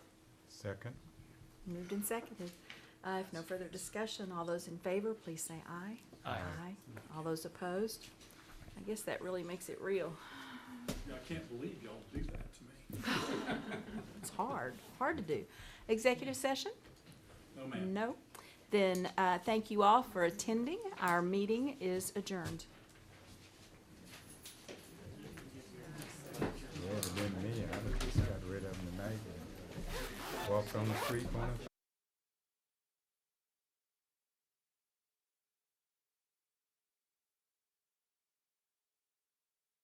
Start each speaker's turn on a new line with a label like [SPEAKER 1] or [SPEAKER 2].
[SPEAKER 1] Second?
[SPEAKER 2] Moved and seconded. Uh, If no further discussion, all those in favor, please say aye.
[SPEAKER 3] Aye.
[SPEAKER 2] All those opposed? I guess that really makes it real.
[SPEAKER 4] Yeah, I can't believe y'all do that to me.
[SPEAKER 2] It's hard, hard to do. Executive session?
[SPEAKER 4] No, ma'am.
[SPEAKER 2] No. Then, uh, thank you all for attending. Our meeting is adjourned.
[SPEAKER 1] Yeah, it'd have been me, I would've just got rid of them tonight and walked on the street one of